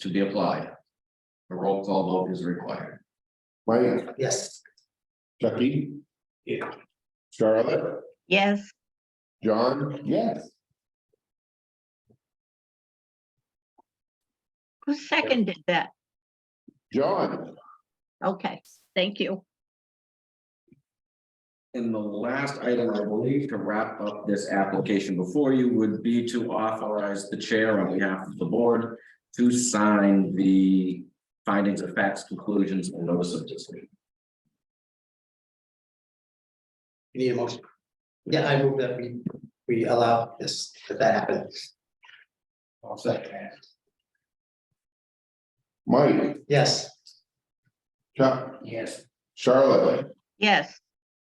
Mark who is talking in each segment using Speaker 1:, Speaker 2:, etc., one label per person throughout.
Speaker 1: to be applied. A roll call vote is required.
Speaker 2: Mike,
Speaker 3: Yes.
Speaker 2: Chucky?
Speaker 3: Yeah.
Speaker 2: Charlotte,
Speaker 4: Yes,
Speaker 2: John? Yes.
Speaker 4: who seconded that?
Speaker 2: John,
Speaker 4: Okay, thank you.
Speaker 1: And the last item, I believe, to wrap up this application before you would be to authorize the chair on behalf of the board to sign the findings of facts, conclusions, and notice of decision.
Speaker 3: You need a motion? Yeah, I move that we, we allow this, that that happens. I'll second.
Speaker 2: Mike,
Speaker 3: Yes.
Speaker 2: Chuck,
Speaker 3: Yes.
Speaker 2: Charlotte,
Speaker 4: Yes,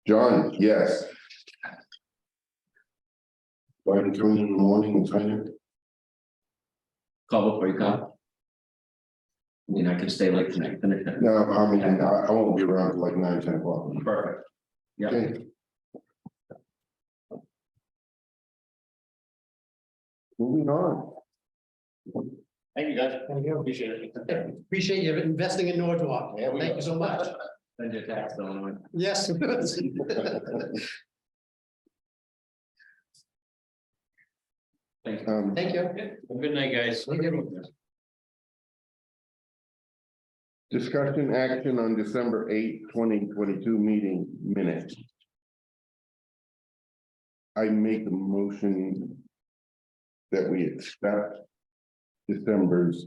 Speaker 2: John, yes. Why did you come in in the morning and sign it?
Speaker 1: Call before you come. I mean, I can stay late tonight. finish it.
Speaker 2: No, I mean, I, I won't be around till like nine, ten o'clock.
Speaker 1: Perfect. Yeah,
Speaker 2: Okay. Moving on.
Speaker 5: Thank you, guys. Thank you. Appreciate it.
Speaker 3: Appreciate you investing in Norwood.
Speaker 5: Yeah, we
Speaker 3: Thank you so much.
Speaker 1: send your tax on it.
Speaker 3: Yes.
Speaker 1: Thank you.
Speaker 2: Um,
Speaker 3: Thank you.
Speaker 5: Good night, guys.
Speaker 2: discussion action on December eighth, twenty twenty-two meeting minutes. I make a motion that we accept December's,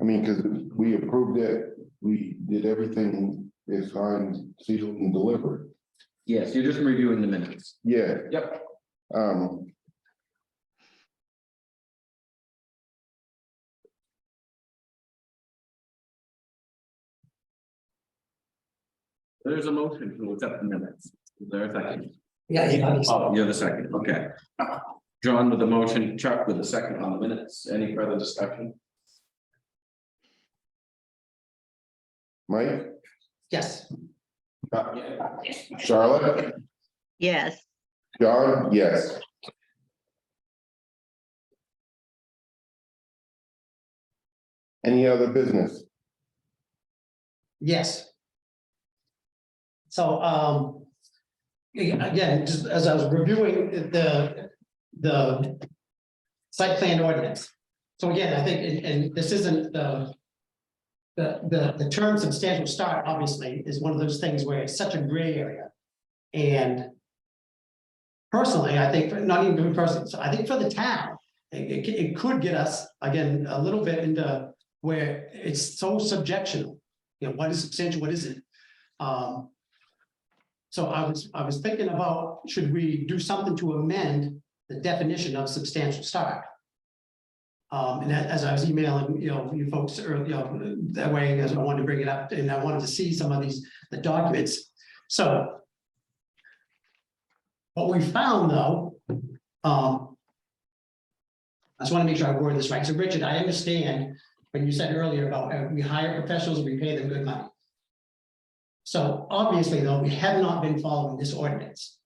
Speaker 2: I mean, because we approved it, we did everything, it's signed, sealed and delivered.
Speaker 1: Yes, you're just reviewing the minutes.
Speaker 2: Yeah.
Speaker 1: Yep.
Speaker 2: Um.
Speaker 1: There's a motion to accept the minutes. Is there a second?
Speaker 3: Yeah, yeah.
Speaker 1: Oh, you're the second, okay. John with the motion, Chuck with the second on the minutes. Any further discussion?
Speaker 2: Mike,
Speaker 3: Yes.
Speaker 2: Charlotte,
Speaker 4: yes,
Speaker 2: John, yes. Any other business?
Speaker 3: Yes. So, um. Again, just as I was reviewing the, the. Site plan ordinance. So again, I think, and, and this isn't the. The, the, the term substantial start obviously is one of those things where it's such a gray area. And. Personally, I think, for- not even personally, so I think for the town, it, it, c- it could get us, again, a little bit into where it's so subjectional you know, what is substantial, what isn't? Um. So I was, I was thinking about, should we do something to amend the definition of substantial start? Um, and a- as I was emailing, you know, you folks earlier, you know, that way, as I wanted to bring it up, and I wanted to see some of these, the documents, so. What we found though, um. I just want to make sure I word this right, so Richard, I understand when you said earlier about uh, we hire professionals, we pay them good money. So obviously, though, we have not been following this ordinance.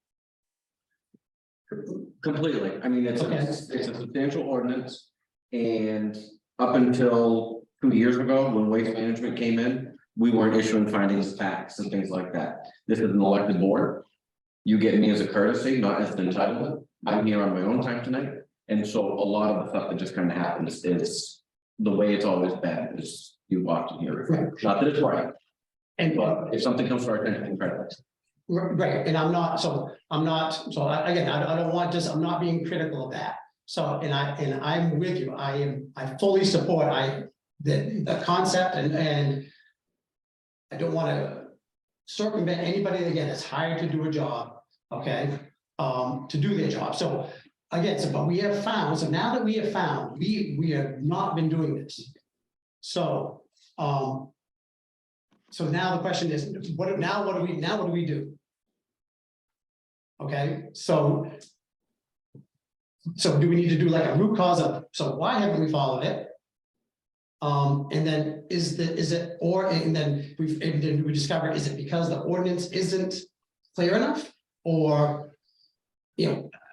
Speaker 1: Completely. I mean, it's,
Speaker 3: Okay.
Speaker 1: a- it's a substantial ordinance. And up until two years ago, when waste management came in, we weren't issuing findings, of facts and things like that. This is an elected board. You get me as a courtesy, not as an entitlement. I'm here on my own time tonight. And so a lot of the stuff that just kind of happens is the way it's always been is you walk in here. Not that it's right,
Speaker 3: And
Speaker 1: but if something comes to our attention, incredible.
Speaker 3: right, and I'm not, so I'm not, so I, again, I, I don't want just, I'm not being critical of that. So, and I, and I'm with you, I am, I fully support, I, the, the concept and, and. I don't wanna circumvent anybody again that's hired to do a job, okay, um, to do their job, so. Again, so, but we have found, so now that we have found, we, we have not been doing this. So, um. So now the question is, what, now what do we, now what do we do? Okay, so. So do we need to do like a root cause of, so why haven't we followed it? Um, and then is the, is it, or, and then we've, and then we discover, is it because the ordinance isn't clear enough? Or, you know,